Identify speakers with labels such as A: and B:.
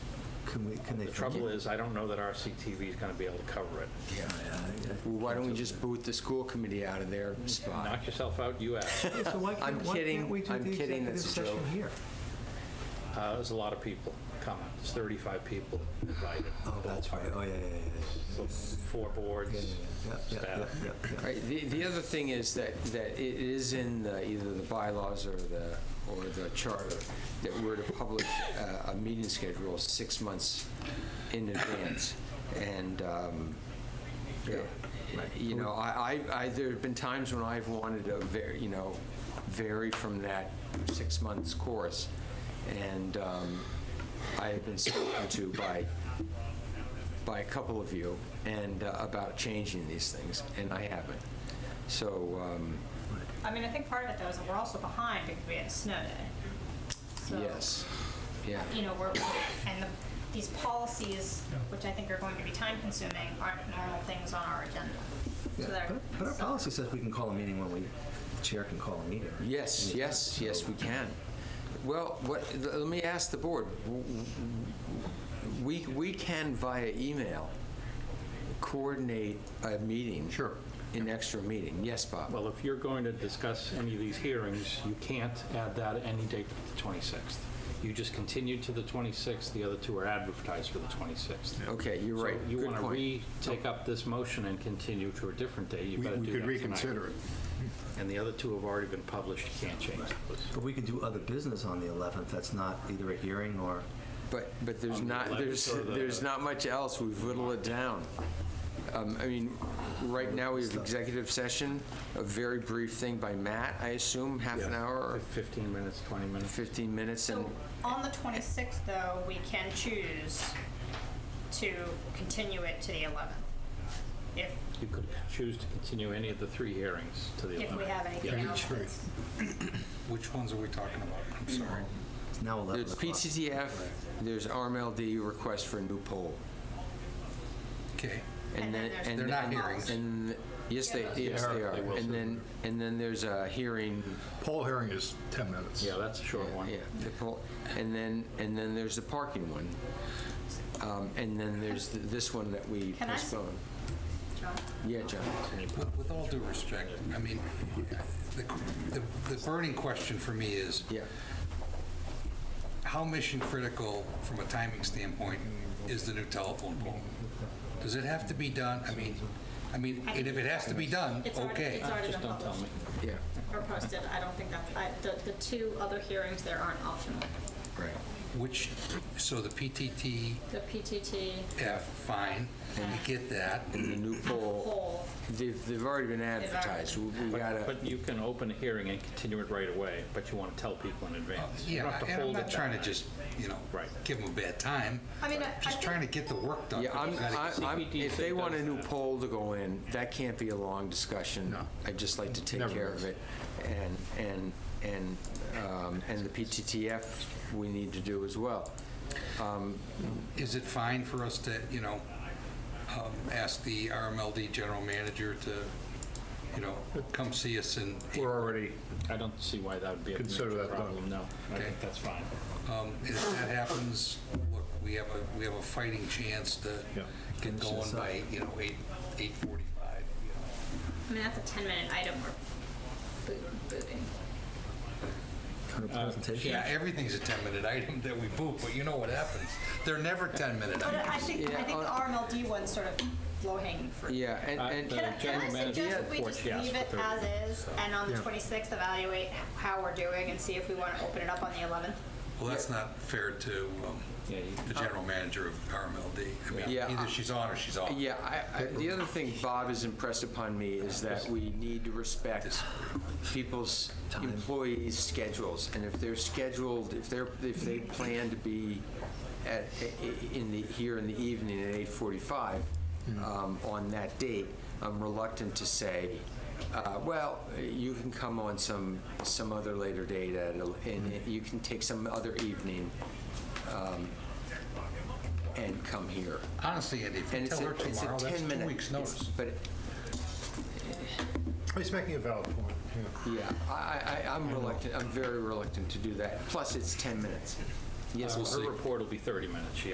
A: Can we, can they?
B: The trouble is, I don't know that RCTV is going to be able to cover it.
C: Well, Why don't we just boot the school committee out of their spot?
B: Knock yourself out, you ask.
A: Yeah, So why can't,
C: I'm
A: why
C: kidding.
A: can't we do
C: I'm
A: the
C: kidding.
A: executive
C: That's a
A: session
C: joke.
A: here?
B: Uh, There's a lot of people coming. There's 35 people invited.
A: Oh, that's right. Oh, yeah, yeah, yeah, yeah.
B: So Four boards,
A: Yeah, yeah, yeah,
B: staff.
A: yeah, yeah, yeah.
C: Right, the, the other thing is that, that it is in the- either the bylaws or the, or the charter that we're to publish uh, a, a meeting schedule six months in advance. And, um, you know, I, I, I- there have been times when I've wanted to, var- you know, vary from that six months course. And um, I have been spoken to by, by a couple of you and uh, about changing these things, and I haven't. So, um,
D: I mean, I think part of it though is that we're also behind because we had a snow day. So,
C: yes, yeah.
D: You know, we're, and the, these policies, which I think are going to be time consuming, aren't normal things on our agenda. So
A: Yeah,
D: they're-
A: but- But our
D: so-
A: policy says we can call a meeting when we, the chair can call a meeting.
C: Yes, yes, yes, we can. Well, what, let me ask the board. We, we can via email coordinate a meeting. Sure. An extra meeting. Yes, Bob?
B: Well, if you're going to discuss any of these hearings, you can't add that any date but the 26th. You just continue to the 26th, the other two are advertised for the 26th.
C: Okay, you're right.
B: So you
C: Good
B: want to
C: point.
B: re-take up this motion and continue to a different day, you
E: We
B: better do
E: we
B: that
E: could
B: tonight.
E: reconsider it.
B: And the other two have already been published, you can't change those.
A: But we can do other business on the 11th. That's not either a hearing or,
C: But, but there's
B: On the
C: not,
B: 11th
C: there's,
B: or the-
C: there's not much else. We've whittled it down. Um, I mean, right now, we have executive session, a very brief thing by Matt, I assume, half an
B: Yeah.
C: hour or
B: 15 minutes, 20 minutes.
C: 15 minutes, and,
D: So on the 26th though, we can choose to continue it to the 11th. If,
B: You could choose to continue any of the three hearings to the 11th.
D: if we have anything else that's
F: Which ones are we talking about? I'm sorry.
A: it's now 11
C: there's
A: o'clock.
C: PTTF, there's RMLD request for a new poll.
F: Okay.
D: And then there's
C: and
F: They're
C: then-
F: not hearings.
C: And, yes, they, yes, they are.
B: They will
C: And
B: soon.
C: then, and then there's a hearing,
E: Poll hearing is 10 minutes.
B: Yeah, that's a short one.
C: yeah, the poll, and then, and then there's the parking one. Um, And then there's th- this one that we
D: Can I s-
C: postponed.
D: John,
C: Yeah, John.
F: With with all due respect, I mean, the the- the burning question for me is,
C: Yeah.
F: how mission critical, from a timing standpoint, is the new telephone pole? Does it have to be done? I mean, I mean, and if it has to be done,
D: It's already,
F: okay.
D: it's already been
B: Just don't tell
D: published
B: me.
C: Yeah,
D: or posted. I don't think that, I, the, the two other hearings there aren't optional.
C: right.
F: Which, so the PTTF,
D: The PTT
F: fine, we get that.
C: The new poll,
D: poll,
C: they've, they've already been
D: already-
C: advertised. We we gotta,
B: But you can open a hearing and continue it right away, but you want to tell people in advance. You don't
F: Yeah,
B: have to
F: and I'm
B: hold it
F: not
B: that
F: trying to
B: night.
F: just, you know,
B: Right.
F: give them a bad time.
D: I mean, I- I
F: Just
D: think-
F: trying to get the work done.
C: yeah, I'm,
F: We've gotta get-
C: I- I'm, if they want a new
B: Does that.
C: poll to go in, that can't be a long discussion.
E: No.
C: I'd just like to take
E: Never
C: care
E: is.
C: of it. And, and, and, um, and the PTTF we need to do as well. Um,
F: Is it fine for us to, you know, um, ask the RMLD general manager to, you know, come see us and,
E: We're already,
B: I don't see why that would be a
E: Consider
B: major
E: that done.
B: problem, no. I
F: Okay.
B: think that's fine.
F: um, if that happens, look, we have a, we have a fighting chance to
E: Yeah.
F: get
A: Finish
F: going
A: this up.
F: by, you know, eight, 8:45. you
D: I mean, that's a 10-minute item we're boot- booting.
A: Kind of
F: know.
A: presentation.
F: Yeah, everything's a 10-minute item that we boot, but you know what happens. They're never 10-minute
D: But I
F: items.
D: think,
C: Yeah,
D: I think the
C: uh,
D: RMLD one's sort of low-hanging fruit.
C: Yeah, and,
B: Uh,
C: and.
B: the
D: Can I, can I
B: general manager
D: suggest we
B: reports,
D: just
B: yes,
D: leave
B: for
D: it
B: thirty.
D: as is, and on the
E: Yeah.
D: 26th evaluate how we're doing and see if we want to open it up on the 11th?
F: Well, that's not fair to um,
B: Yeah, you-
F: the general manager of RMLD. I mean,
C: Yeah.
F: either she's on or she's off.
C: Yeah, I, I, the other thing Bob has impressed upon me is that we need to respect people's employees' schedules. And if they're scheduled, if they're, if they plan to be at, in the, here in the evening at eight forty-five, um, on that date, I'm reluctant to say, uh, well, you can come on some, some other later date at a- and you can take some other evening, um, and come here.
F: Honestly, Andy, if
C: And
F: you
C: it's
F: tell
C: a,
F: her
C: it's a
F: tomorrow,
C: 10
F: that's two
C: minute.
F: weeks'
C: it's-
F: notice.
C: But,
E: Oh, he's making a valid point. yeah.
C: yeah, I, I, I'm reluctant, I'm very reluctant to do that. Plus, it's 10 minutes. Yes,
B: Well,
C: Bob?
B: Her report will be 30 minutes, she